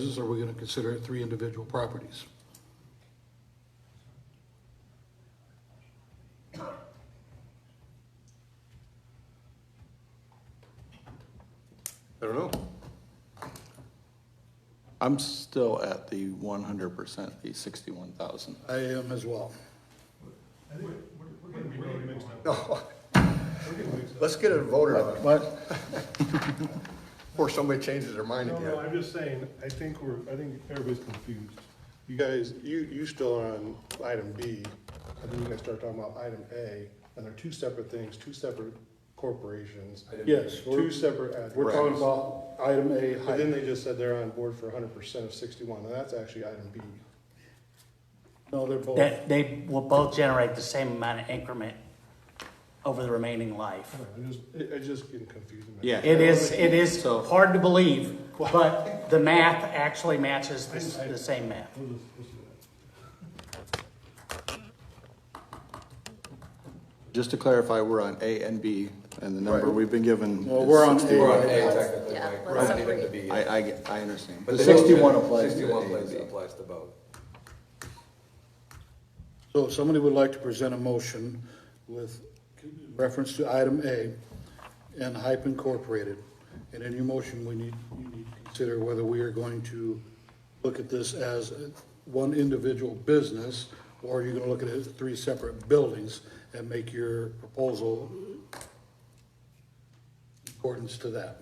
business, are we going to consider it three individual properties? I don't know. I'm still at the one hundred percent, the sixty-one thousand. I am as well. Let's get it voted on But before somebody changes their mind No, no, again. I'm just saying, I think we're, I think everybody's confused. You guys, you, you still are on item B, and then you guys start talking about item A, and they're two separate things, two separate corporations. yes, Two we're, separate addresses. we're talking about item A, But then height. they just said they're on board for hundred percent of sixty-one, and that's actually item B. No, they're both. That they will both generate the same amount of increment over the remaining life. I just, it, it's just getting confusing. Yeah. It is, it is So- hard to believe, but the math actually matches the the same math. Just to clarify, we're on A and B, and the number Right. we've been given Well, we're on is A. We're sixty-one. on A. technically, right? We're not even to be. I, I, I understand. But But they- sixty-one applies to Sixty-one A and applies, B. applies to both. So if somebody would like to present a motion with reference to item A and Hype Incorporated, and in your motion, we need, you need to consider whether we are going to look at this as one individual business, or you're gonna look at it as three separate buildings and make your proposal in accordance to that.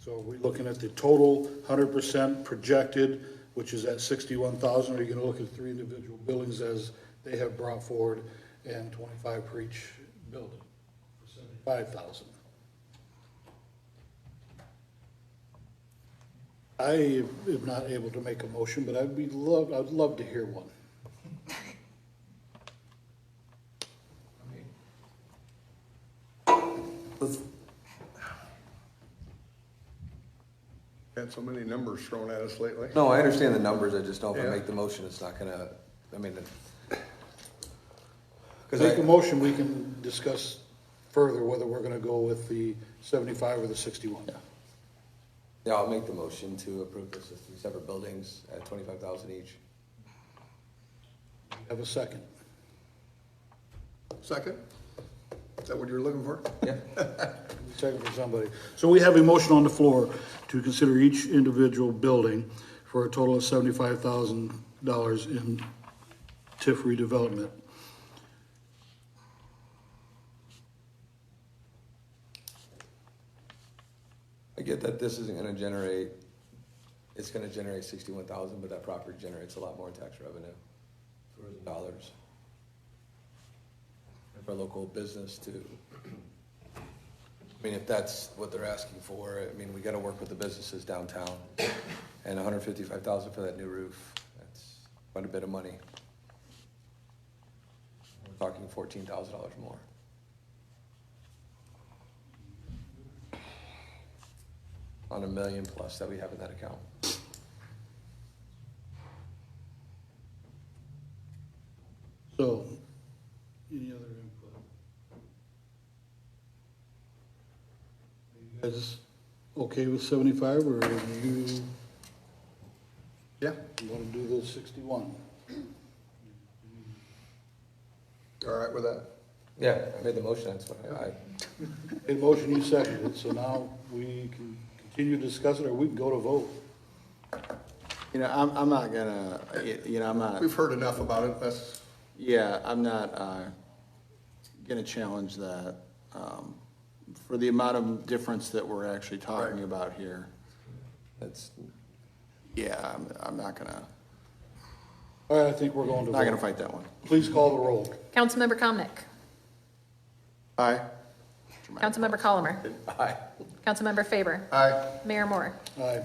So are we looking at the total hundred percent projected, which is at sixty-one thousand? Are you gonna look at three individual buildings as they have brought forward and twenty-five per each building? Five thousand. I am not able to make a motion, but I'd be love, I'd love to hear one. Had so many numbers thrown at us lately. No, I understand the numbers, I just know if I Yeah. make the motion, it's not gonna, I mean, it- cause Make a I, motion, we can discuss further whether we're gonna go with the seventy-five or the sixty-one. yeah, I'll make the motion to approve this as three separate buildings at twenty-five thousand each. Have a second? Second? Is that what you're looking for? Yeah. Second for somebody. So we have a motion on the floor to consider each individual building for a total of seventy-five thousand dollars in TIF redevelopment. I get that this isn't gonna generate, it's gonna generate sixty-one thousand, but that property generates a lot more in tax revenue, tourism dollars. And For local business too. I mean, if that's what they're asking for, I mean, we gotta work with the businesses downtown. And hundred fifty-five thousand for that new roof, that's quite a bit of money. We're Talking fourteen thousand dollars more. On a million plus that we have in that account. So, any other input? Are you guys okay with seventy-five, or do you Yeah, wanna do the sixty-one? all right with that? Yeah, I made the motion, that's what I, A motion you seconded, so now we can continue to discuss it, or we can go to vote. You know, I'm, I'm not gonna, y- you know, I'm not, We've heard enough about it, that's, yeah, I'm not, uh, gonna challenge that, um, for the amount of difference that we're actually talking Right. about here. that's, Yeah, I'm, I'm not gonna, All right, I think we're going to vote. not gonna fight that one. Please call the roll. Councilmember Comnic. Aye. Councilmember Colomer. aye. Councilmember Faber. aye. Mayor Moore. Aye.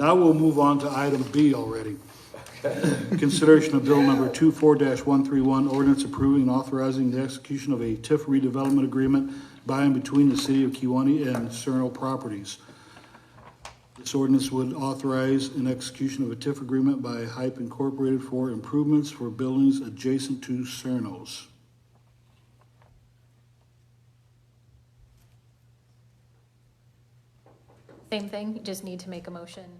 Now we'll move on to item B already. Consideration of bill number 24 one-three-one, ordinance approving and authorizing the execution of a TIF redevelopment agreement by and between the city of Kiwanee and Cerno Properties. This ordinance would authorize an execution of a TIF agreement by Hype Incorporated for improvements for buildings adjacent to Cernos. Same thing, you just need to make a motion